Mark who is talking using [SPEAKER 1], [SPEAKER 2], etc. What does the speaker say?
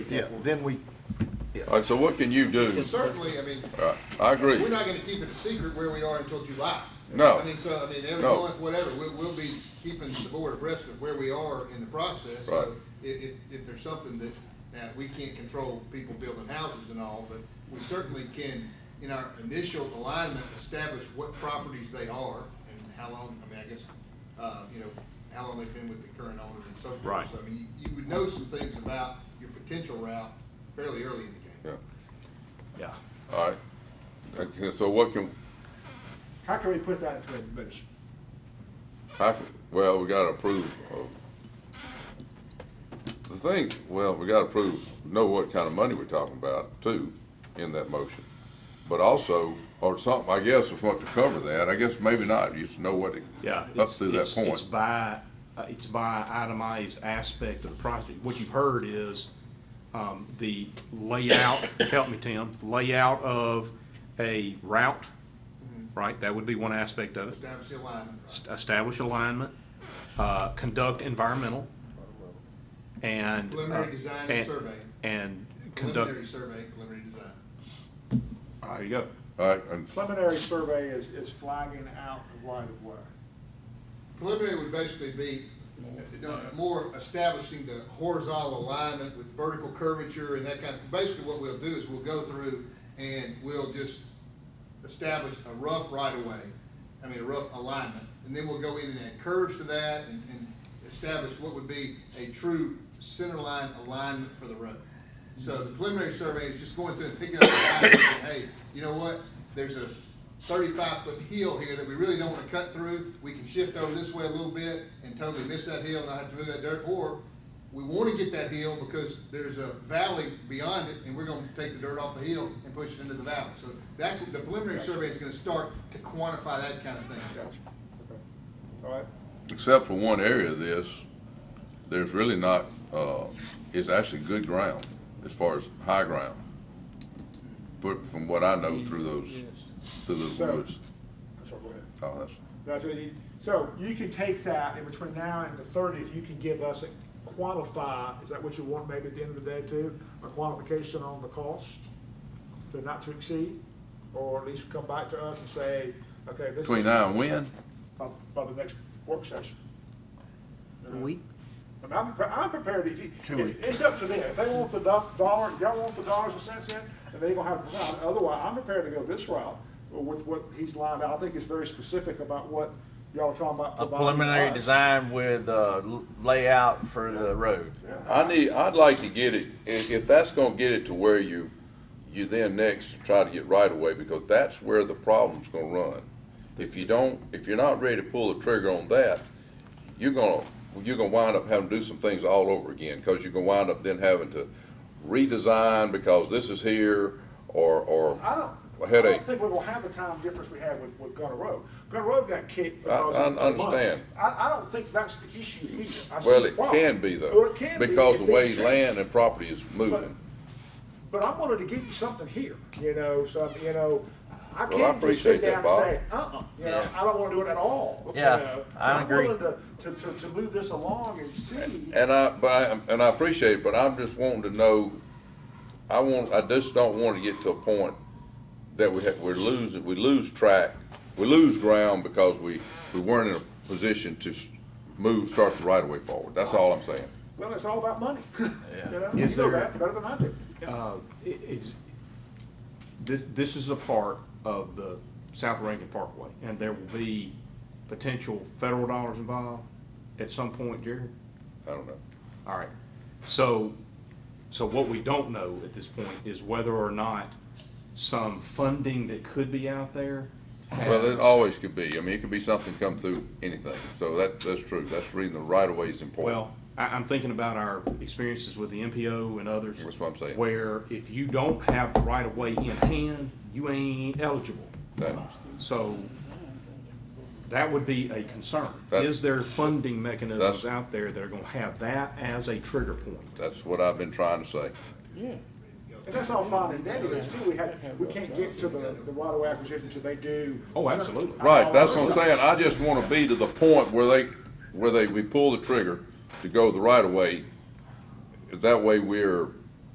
[SPEAKER 1] Yeah, then we,
[SPEAKER 2] All right, so what can you do?
[SPEAKER 3] Well, certainly, I mean,
[SPEAKER 2] All right, I agree.
[SPEAKER 3] we're not gonna keep it a secret where we are until July.
[SPEAKER 2] No.
[SPEAKER 3] I mean, so, I mean, every
[SPEAKER 2] No.
[SPEAKER 3] month, whatever, we'll, we'll be keeping the board abreast of where we are in the process.
[SPEAKER 2] Right.
[SPEAKER 3] So If, if, if there's something that, now, we can't control people building houses and all, but we certainly can, in our initial alignment, establish what properties they are and how long, I mean, I guess, uh, you know, how long they've been with the current owner and so forth.
[SPEAKER 4] Right.
[SPEAKER 3] So, I mean, you, you would know some things about your potential route fairly early in
[SPEAKER 2] Yeah,
[SPEAKER 3] the game.
[SPEAKER 4] Yeah.
[SPEAKER 2] all right. Okay, so what can,
[SPEAKER 5] How can we put that to administration?
[SPEAKER 2] how, can- well, we gotta approve of. The thing, well, we gotta approve, know what kind of money we're talking about too, in that motion. But also, or something, I guess, if we want to cover that, I guess maybe not, you just know what it,
[SPEAKER 4] Yeah.
[SPEAKER 2] up
[SPEAKER 4] it's-
[SPEAKER 2] through that
[SPEAKER 4] it's- It's
[SPEAKER 2] point.
[SPEAKER 4] by, uh, it's by itemized aspect of the project. What you've heard is, um, the layout, help me, Tim, layout of a route,
[SPEAKER 5] Mm-hmm.
[SPEAKER 4] right? That would be one aspect of it.
[SPEAKER 3] Establish the alignment, right?
[SPEAKER 4] establish alignment, uh, conduct environmental, Uh, and.
[SPEAKER 3] Preliminary design and survey.
[SPEAKER 4] And
[SPEAKER 3] Preliminary
[SPEAKER 4] conduct,
[SPEAKER 3] survey, preliminary design.
[SPEAKER 4] there you go.
[SPEAKER 2] all right, and,
[SPEAKER 5] Preliminary survey is, is flagging out the right of way.
[SPEAKER 3] Preliminary would basically be uh, uh, more establishing the horizontal alignment with vertical curvature and that kind of, basically what we'll do is we'll go through and we'll just establish a rough right-of-way, I mean, a rough alignment, and then we'll go in and add curves to that and, and establish what would be a true centerline alignment for the road. So the preliminary survey is just going through and picking up, the lines and saying, hey, you know what, there's a thirty-five foot hill here that we really don't wanna cut through, we can shift over this way a little bit and totally miss that hill, and not have to move that dirt, or we wanna get that hill because there's a valley beyond it, and we're gonna take the dirt off the hill and push it into the valley. So that's, the preliminary survey is gonna start to quantify that kind of thing.
[SPEAKER 5] Okay. All right,
[SPEAKER 2] except for one area of this, there's really not, uh, it's actually good ground as far as high ground. But from what I know through those, through those
[SPEAKER 5] So-
[SPEAKER 2] woods.
[SPEAKER 5] that's all, go ahead.
[SPEAKER 2] Oh, that's,
[SPEAKER 5] That's what you, so you can take that, and between now and the thirtieth, you can give us a quantify, is that what you want maybe at the end of the day too? A quantification on the cost, to not to exceed, or at least come back to us and say, okay, this is.
[SPEAKER 2] between now and when?
[SPEAKER 5] By, by the next work session.
[SPEAKER 6] A week?
[SPEAKER 5] I mean, I'm, pre- I'm prepared, if you, if- it's up to them, if they want the do- dollar, y'all want the dollars and cents in, then they gonna have to provide, otherwise, I'm prepared to go this route with what he's lined out, I think it's very specific about what y'all are talking about.
[SPEAKER 7] A
[SPEAKER 5] providing
[SPEAKER 7] preliminary
[SPEAKER 5] us.
[SPEAKER 7] design with uh, l- layout for the road.
[SPEAKER 2] I need, I'd like to get it, if, if that's gonna get it to where you, you then next try to get right away, because that's where the problem's gonna run. If you don't, if you're not ready to pull the trigger on that, you're gonna, you're gonna wind up having to do some things all over again, cause you're gonna wind up then having to redesign because this is here, or, or
[SPEAKER 5] I don't,
[SPEAKER 2] a
[SPEAKER 5] I
[SPEAKER 2] headache.
[SPEAKER 5] don't think we're gonna have the time difference we had with, with Gunner Road. Gunner Road got kicked
[SPEAKER 2] I- I
[SPEAKER 5] because of the money.
[SPEAKER 2] understand.
[SPEAKER 5] I, I don't think that's the issue either. I see
[SPEAKER 2] Well,
[SPEAKER 5] the
[SPEAKER 2] it
[SPEAKER 5] problem.
[SPEAKER 2] can be though.
[SPEAKER 5] Or it can be
[SPEAKER 2] Because
[SPEAKER 5] if
[SPEAKER 2] the
[SPEAKER 5] things
[SPEAKER 2] way
[SPEAKER 5] change.
[SPEAKER 2] land and property is moving.
[SPEAKER 5] But I wanted to give you something here, you know, some, you know,
[SPEAKER 2] Well, I
[SPEAKER 5] I can't just
[SPEAKER 2] appreciate
[SPEAKER 5] sit
[SPEAKER 2] that,
[SPEAKER 5] down
[SPEAKER 2] Bob.
[SPEAKER 5] and say, uh-uh, you know,
[SPEAKER 7] Yeah.
[SPEAKER 5] I don't wanna do it at all. you
[SPEAKER 7] Yeah,
[SPEAKER 5] know. So
[SPEAKER 7] I agree.
[SPEAKER 5] I'm willing to, to, to, to move this along and see.
[SPEAKER 2] And I, but I, and I appreciate it, but I'm just wanting to know, I want, I just don't want to get to a point that we have, we're losing, we lose track, we lose ground because we, we weren't in a position to s- move, start the right of way forward. That's all I'm saying.
[SPEAKER 5] Well, it's all about money, you know, you
[SPEAKER 4] Is
[SPEAKER 5] know
[SPEAKER 4] there-
[SPEAKER 5] that better than I do.
[SPEAKER 4] Uh, i- is, this, this is a part of the South Rankin Parkway, and there will be potential federal dollars involved at some point, Jared?
[SPEAKER 2] I don't know.
[SPEAKER 4] All right. So, so what we don't know at this point is whether or not some funding that could be out there
[SPEAKER 2] Well, it
[SPEAKER 4] has
[SPEAKER 2] always could be. I mean, it could be something come through anything. So that, that's true. That's reading the right of way is important.
[SPEAKER 4] Well, I, I'm thinking about our experiences with the MPO and others.
[SPEAKER 2] That's what I'm saying.
[SPEAKER 4] Where if you don't have the right of way in hand, you ain't eligible.
[SPEAKER 2] That-
[SPEAKER 4] So that would be a concern.
[SPEAKER 2] That-
[SPEAKER 4] Is there funding mechanisms
[SPEAKER 2] That's-
[SPEAKER 4] out there that are gonna have that as a trigger point?
[SPEAKER 2] That's what I've been trying to say.
[SPEAKER 5] And that's all fine and dandy, but still, we have, we can't get to the, the right away acquisition until they do.
[SPEAKER 4] Oh, absolutely.
[SPEAKER 2] Right, that's what I'm saying, I just wanna be to the point where they, where they, we pull the trigger to go the right of way. That way we're